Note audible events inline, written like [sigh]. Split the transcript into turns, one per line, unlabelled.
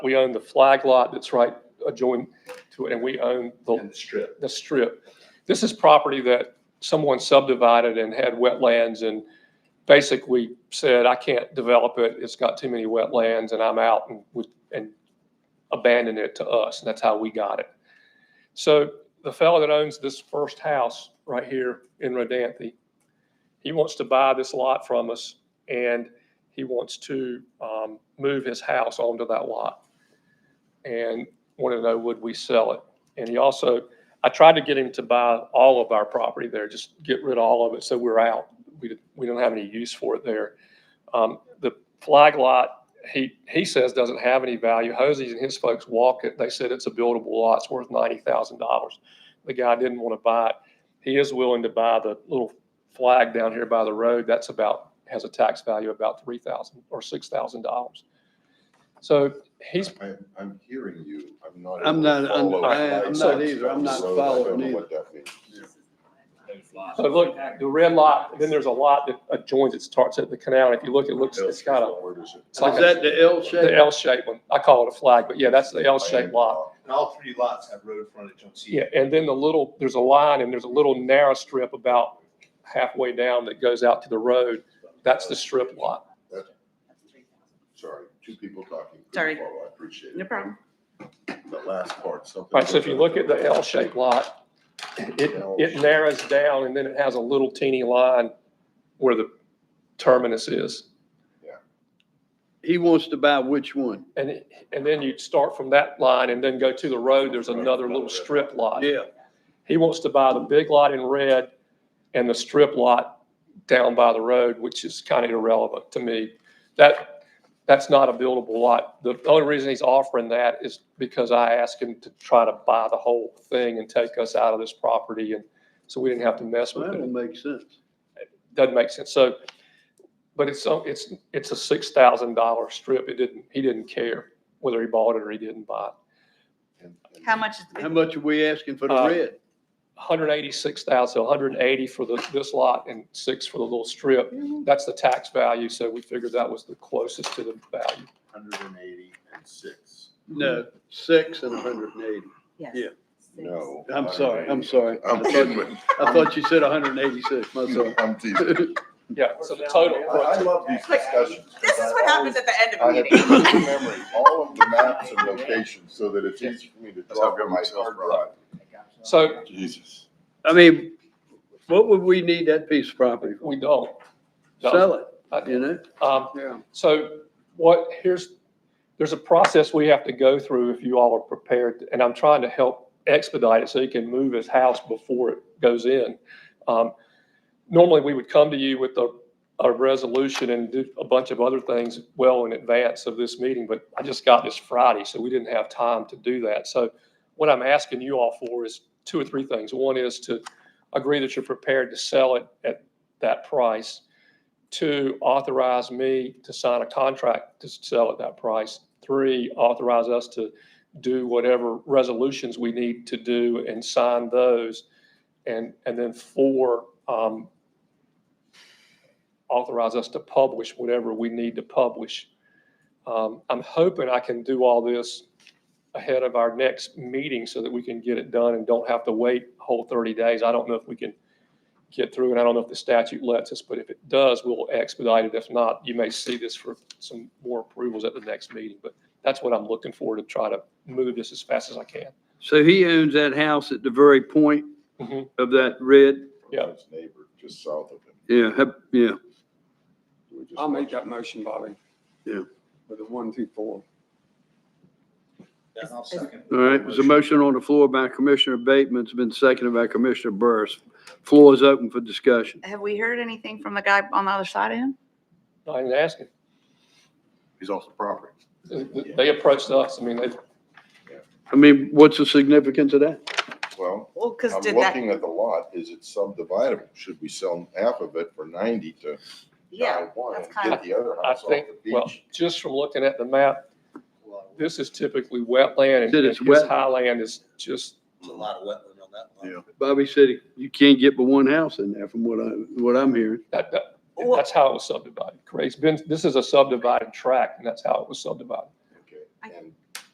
We own the flag lot that's right adjoining to it, and we own the,
in the strip.
the strip. This is property that someone subdivided and had wetlands and basically said, I can't develop it, it's got too many wetlands, and I'm out and would, and abandoned it to us, and that's how we got it. So the fellow that owns this first house right here in Rodanthe, he wants to buy this lot from us, and he wants to um, move his house onto that lot. And wanted to know, would we sell it? And he also, I tried to get him to buy all of our property there, just get rid of all of it, so we're out. We, didn't- we don't have any use for it there. Um, The flag lot, he, he says doesn't have any value. Hosey's and his folks walk it. They said it's a buildable lot. It's worth ninety thousand dollars. The guy didn't want to buy it. He is willing to buy the little flag down here by the road. That's about, has a tax value of about three thousand or six thousand dollars. So he's
I'm, I'm hearing you, I'm not.
I'm
able to
not- I'm-
follow
I- I'm
what
not
you're
either. I'm
saying.
not
So I don't
following
know
either.
what that means.
So look, the red lot, then there's a lot that adjoins, it starts at the canal, and if you look, it looks, it's got a,
Where does it-
it's like
Is that the L shape?
the L-shaped one, I call it a flag, but yeah, that's the L-shaped lot.
And all three lots have road frontage on C.
Yeah, and then the little, there's a line, and there's a little narrow strip about halfway down that goes out to the road, that's the strip lot.
Sorry, two people talking. couldn't
Sorry.
follow. I appreciate
No
it.
problem.
The last part, something.
All right, so if you look at the L-shaped lot, it, it narrows down, and then it has a little teeny line where the terminus is.
He wants to buy which one?
And, it- and then you start from that line and then go to the road, there's another little strip lot.
Yeah,
He wants to buy the big lot in red and the strip lot down by the road, which is kind of irrelevant to me. That, that's not a buildable lot. The only reason he's offering that is because I asked him to try to buy the whole thing and take us out of this property, and so we didn't have to mess
well,
with
that'll
it.
make sense.
Doesn't make sense. So, but it's, so- it's, it's a six thousand dollar strip. It didn't, he didn't care whether he bought it or he didn't buy it.
And- and-
How much is the
How
big?
much are we asking for the
Uh,
red?
186,000, so 180 for the, this lot and six for the little strip. That's the tax value, so we figured that was the closest to the value.
Hundred and eighty and six.
No, six and hundred and eighty.
Yes.
Yeah.
No.
I'm sorry, I'm sorry. [laughs]
I'm kidding with,
I thought you said hundred and eighty-six, my son.
I'm
[laughs]
teasing.
Yeah, so the total,
I I love these discussions.
This is what happens at the end of
I
a
have
meeting.
to
[laughs]
put in memory all of the maps and locations so that it's easy for me to
That's how
draw from my
government sells
hard drive.
so
Jesus.
I mean, what would we need that piece of property for?
we don't.
Sell it,
I-
you know?
um,
Yeah.
So what, here's, there's a process we have to go through if you all are prepared, and I'm trying to help expedite it so he can move his house before it goes in. Um, Normally, we would come to you with a, a resolution and do a bunch of other things well in advance of this meeting, but I just got this Friday, so we didn't have time to do that. So what I'm asking you all for is two or three things. One is to agree that you're prepared to sell it at that price Two, authorize me to sign a contract to sell at that price. Three, authorize us to do whatever resolutions we need to do and sign those. And, and then four, um, authorize us to publish whatever we need to publish. Um, I'm hoping I can do all this ahead of our next meeting so that we can get it done and don't have to wait a whole 30 days. I don't know if we can get through, and I don't know if the statute lets us, but if it does, we'll expedite it. If not, you may see this for some more approvals at the next meeting. But that's what I'm looking for, to try to move this as fast as I can.
So he owns that house at the very point
Mhm.
of that red?
Yeah.
His neighbor just south of him.
Yeah, hep- yeah.
We just
I'll make
watched-
that motion, Bobby.
Yeah.
With the one through four.
Yeah, I'll second.
All right, there's a motion on the floor by Commissioner Bateman, it's been seconded by Commissioner Burris. Floor is open for discussion.
Have we heard anything from the guy on the other side of him?
I didn't ask it.
He's off the property.
They approached us. I mean, they,
I mean, what's the significance of that?
Well,
Well, because
I'm
did that,
looking at the lot, is it subdividable? Should we sell half of it for ninety to
yeah,
buy one
that's
and
kinda-
get the other
I
house off
think,
the
well,
beach?
just from looking at the map, this is typically wetland. and
That it's
His
wet.
highland is just,
There's a lot of wetland on that lot.
Yeah.
Bobby said you can't get but one house in there from what I, what I'm hearing.
that, that,
Well-
that's how it was subdivided. Correct. It's been, this is a subdivided tract, and that's how it was subdivided.
Okay,
I-
and